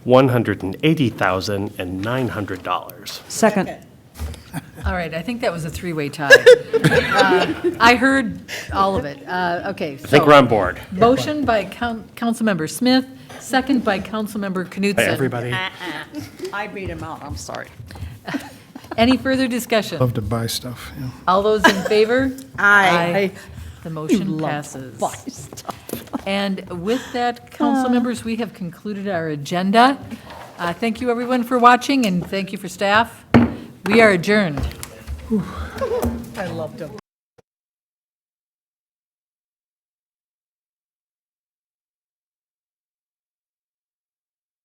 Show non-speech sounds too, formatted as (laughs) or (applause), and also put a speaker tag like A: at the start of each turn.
A: $180,900.
B: Second.
C: All right, I think that was a three-way tie.
D: (laughs)
C: Uh, I heard all of it. Uh, Okay.
A: I think we're on board.
C: Motion by Coun- Councilmember Smith, second by Councilmember
A: Hey,
C: Knutson.
A: everybody.
D: I beat him out, I'm sorry.
C: Any further discussion?
E: Love to buy stuff, yeah.
C: All those in (laughs) favor?
D: Aye.
C: The motion passes. And with that, council members, we have concluded our agenda. Uh, Thank you, everyone, for watching, and thank you for staff. We are adjourned.
D: I loved him.